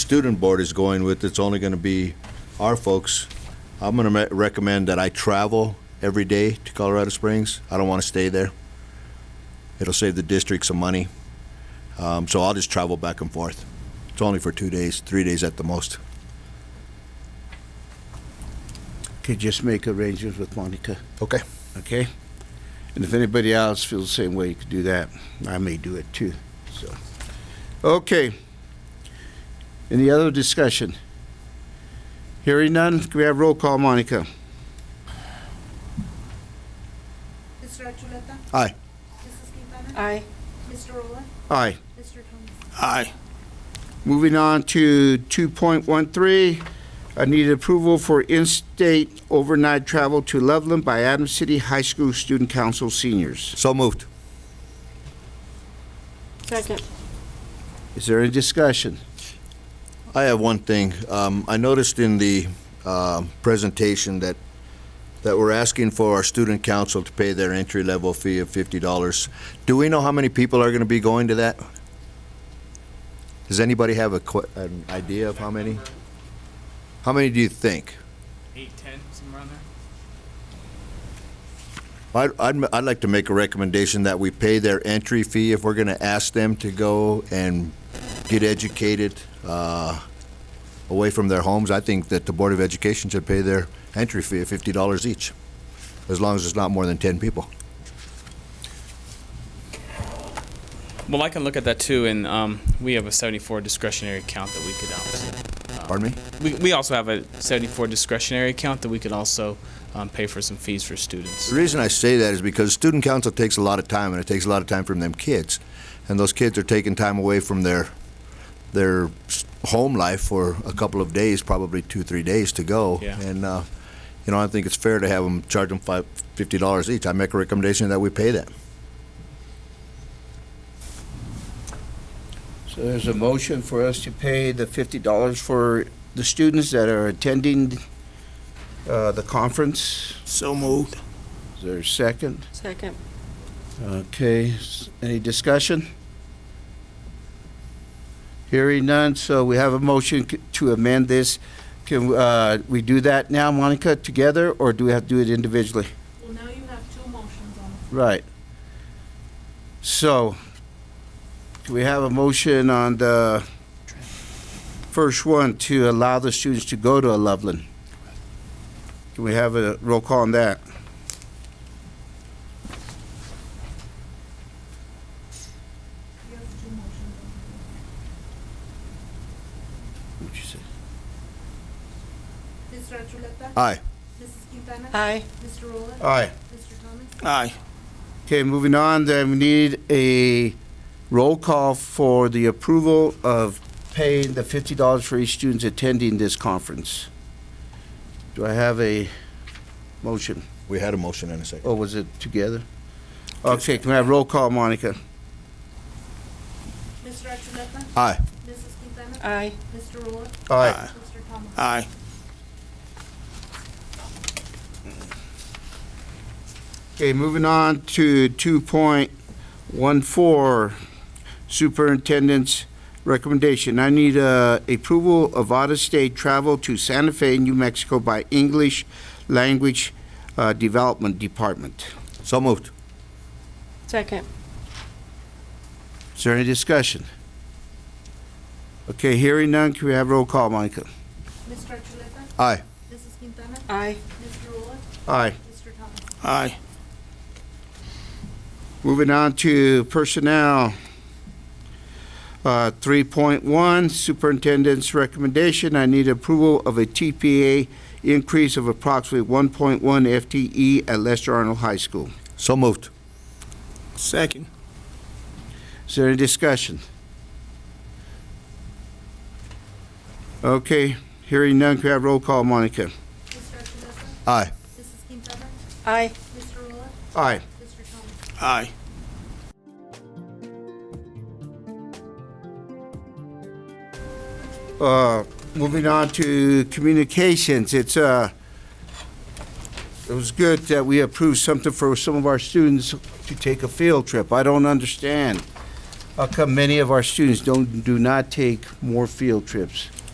student board is going with, it's only going to be our folks. I'm going to recommend that I travel every day to Colorado Springs. I don't want to stay there. It'll save the district some money. Um, so I'll just travel back and forth. It's only for two days, three days at the most. Could just make arrangements with Monica, Okay. okay? And if anybody else feels the same way, you could do that. I may do it too, so. Okay. Any other discussion? Hearing none, can we have roll call, Monica? Mr. Achuleta? Aye. Mrs. Quintana? Aye. Mr. Rolla? Aye. Mr. Thomas? Aye. Moving on to 2.13, I need approval for in-state overnight travel to Loveland by Adams City High School Student Council seniors. So moved. Second. Is there any discussion? I have one thing. Um, I noticed in the um, presentation that, that we're asking for our student council to pay their entry-level fee of $50. Do we know how many people are going to be going to that? Does anybody have a, que- an idea of how many? How many do you think? eight ten somewhere around there. I'd, I'd, I'd like to make a recommendation that we pay their entry fee if we're going to ask them to go and get educated uh, away from their homes. I think that the Board of Education should pay their entry fee of fifty dollars each, as long as it's not more than ten people. Well, I can look at that too, and um, we have a 74 discretionary account that we could also. Pardon me? We, we also have a 74 discretionary account that we could also um, pay for some fees for students. The reason I say that is because student council takes a lot of time, and it takes a lot of time from them kids, and those kids are taking time away from their their s- home life for a couple of days, probably two three days to go. Yeah. And uh, you know, I think it's fair to have them charge them five, fifty dollars each. I make a recommendation that we pay that. So there's a motion for us to pay the $50 for the students that are attending uh, the conference. So moved. Is there a second? Second. Okay, s- any discussion? Hearing none, so we have a motion c- to amend this. Can uh, we do that now, Monica, together, or do we have to do it individually? Well, now you have two motions on Right. So, do we have a motion on the first one to allow the students to go to Loveland? Can we have a roll call on that? You have two motions on. What'd you say? Mr. Achuleta? Aye. Mrs. Quintana? Aye. Mr. Rolla? Aye. Mr. Thomas? Aye. Okay, moving on, then we need a roll call for the approval of paying the fifty dollars for each student attending this conference. Do I have a motion, We had a motion in a second. or was it together? Okay, can I have roll call, Monica? Mr. Achuleta? Aye. Mrs. Quintana? Aye. Mr. Rolla? Aye. Mr. Thomas? Aye. Okay, moving on to two point one four, superintendent's recommendation. I need uh, approval of out-of-state travel to Santa Fe, New Mexico by English Language uh, Development Department. So moved. Second. Is there any discussion? Okay, hearing none, can we have roll call, Monica? Mr. Achuleta? Aye. Mrs. Quintana? Aye. Mr. Rolla? Aye. Mr. Thomas? Aye. Moving on to personnel. Uh, 3.1, Superintendent's recommendation, I need approval of a TPA increase of approximately 1.1 FTE E at Lester Arnold High School. So moved. Second. Is there any discussion? Okay, hearing none, can we have roll call, Monica? Mr. Achuleta? Aye. Mrs. Quintana? Aye. Mr. Rolla? Aye. Mr. Thomas? Aye. Uh, Moving on to communications, it's, uh, it was good that we approved something for some of our students to take a field trip. I don't understand how come many of our students don't, do not take more field trips.